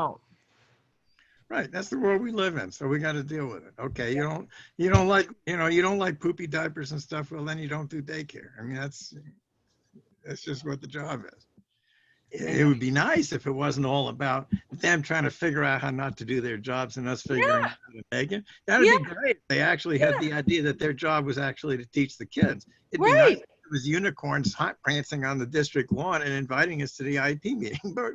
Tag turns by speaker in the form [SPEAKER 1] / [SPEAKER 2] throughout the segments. [SPEAKER 1] out.
[SPEAKER 2] Right, that's the world we live in, so we gotta deal with it. Okay, you don't, you don't like, you know, you don't like poopy diapers and stuff, well, then you don't do daycare. I mean, that's, that's just what the job is. It it would be nice if it wasn't all about them trying to figure out how not to do their jobs and us figuring out
[SPEAKER 1] Yeah.
[SPEAKER 2] how to make it. That'd be great. if They actually had the idea that their job was actually to teach the kids. It'd be nice
[SPEAKER 1] Right.
[SPEAKER 2] if it was unicorns hot prancing on the district lawn and inviting us to the IP meeting, but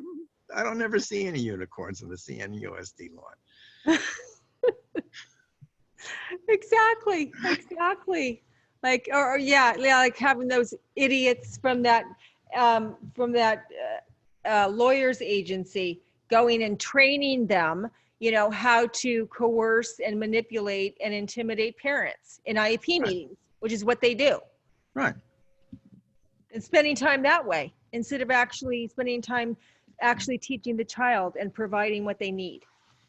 [SPEAKER 2] I don't never see any unicorns on the CNUSD lawn.
[SPEAKER 1] Exactly, exactly. Like, or, or, yeah, yeah, like having those idiots from that, um, from that uh, uh, lawyer's agency going and training them, you know, how to coerce and manipulate and intimidate parents in IEP
[SPEAKER 2] Right.
[SPEAKER 1] meetings, which is what they do.
[SPEAKER 2] Right.
[SPEAKER 1] And spending time that way instead of actually spending time actually teaching the child and providing what they need.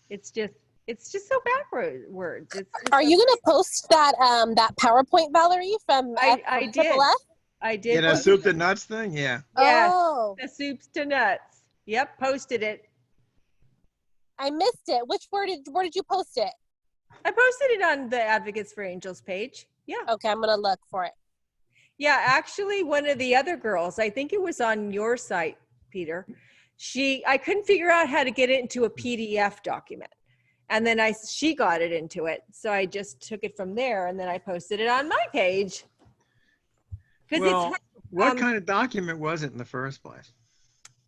[SPEAKER 1] It's just, it's just so backwards. It's, it's
[SPEAKER 3] Are
[SPEAKER 1] so-
[SPEAKER 3] you gonna post that um that PowerPoint, Valerie, from
[SPEAKER 1] I,
[SPEAKER 3] F-
[SPEAKER 1] I
[SPEAKER 3] from
[SPEAKER 1] did.
[SPEAKER 3] Triple F?
[SPEAKER 1] I did.
[SPEAKER 2] Yeah, that
[SPEAKER 1] post
[SPEAKER 2] soup to
[SPEAKER 1] it.
[SPEAKER 2] nuts thing, yeah.
[SPEAKER 1] Yes.
[SPEAKER 3] Oh,
[SPEAKER 1] The soups to nuts. Yep, posted it.
[SPEAKER 3] I missed it. Which where did where did you post it?
[SPEAKER 1] I posted it on the Advocates for Angels page. Yeah.
[SPEAKER 3] Okay, I'm gonna look for it.
[SPEAKER 1] Yeah, actually one of the other girls, I think it was on your site, Peter. She I couldn't figure out how to get it into a PDF document. And then I she got it into it. So I just took it from there and then I posted it on my page. Cuz
[SPEAKER 2] Well,
[SPEAKER 1] it's um,
[SPEAKER 2] what kind of document was it in the first place?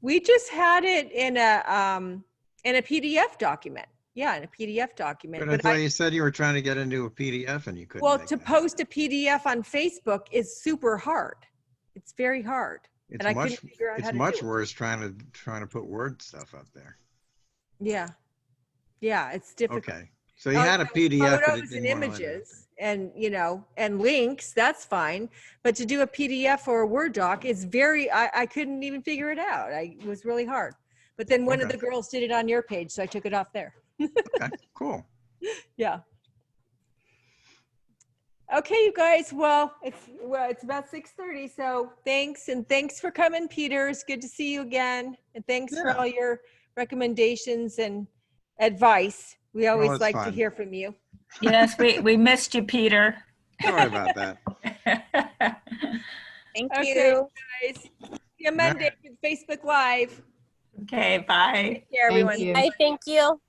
[SPEAKER 1] we just had it in a um in a PDF document. Yeah, in a PDF document.
[SPEAKER 2] But I
[SPEAKER 1] but I-
[SPEAKER 2] thought you said you were trying to get into a PDF and you couldn't.
[SPEAKER 1] Well,
[SPEAKER 2] make
[SPEAKER 1] to
[SPEAKER 2] that.
[SPEAKER 1] post a PDF on Facebook is super hard. It's very hard. And I
[SPEAKER 2] It's
[SPEAKER 1] couldn't
[SPEAKER 2] much,
[SPEAKER 1] figure out
[SPEAKER 2] it's
[SPEAKER 1] how to
[SPEAKER 2] much
[SPEAKER 1] do it.
[SPEAKER 2] worse trying to, trying to put Word stuff up there.
[SPEAKER 1] Yeah. Yeah, it's difficult.
[SPEAKER 2] Okay, so you had a PDF. but it
[SPEAKER 1] Photos and
[SPEAKER 2] didn't wanna let it-
[SPEAKER 1] images and, you know, and links, that's fine. But to do a PDF or a Word doc is very, I, I couldn't even figure it out. I, it was really hard. But then one of
[SPEAKER 2] Okay.
[SPEAKER 1] the girls did it on your page, so I took it off there.
[SPEAKER 2] Okay, Cool.
[SPEAKER 1] Yeah. Okay, you guys. Well, it's well, it's about six thirty. So thanks, and thanks for coming, Peter. It's good to see you again, and thanks
[SPEAKER 2] Yeah.
[SPEAKER 1] for all your recommendations and advice. We always
[SPEAKER 2] it's
[SPEAKER 1] like to
[SPEAKER 2] fine.
[SPEAKER 1] hear from you.
[SPEAKER 4] Yes, we, we missed you, Peter.
[SPEAKER 2] Sorry about that.
[SPEAKER 3] Thank
[SPEAKER 1] Okay.
[SPEAKER 3] you.
[SPEAKER 1] Guys, see you Monday with Facebook Live.
[SPEAKER 4] Okay, bye.
[SPEAKER 1] Take care, everyone.
[SPEAKER 3] I thank you.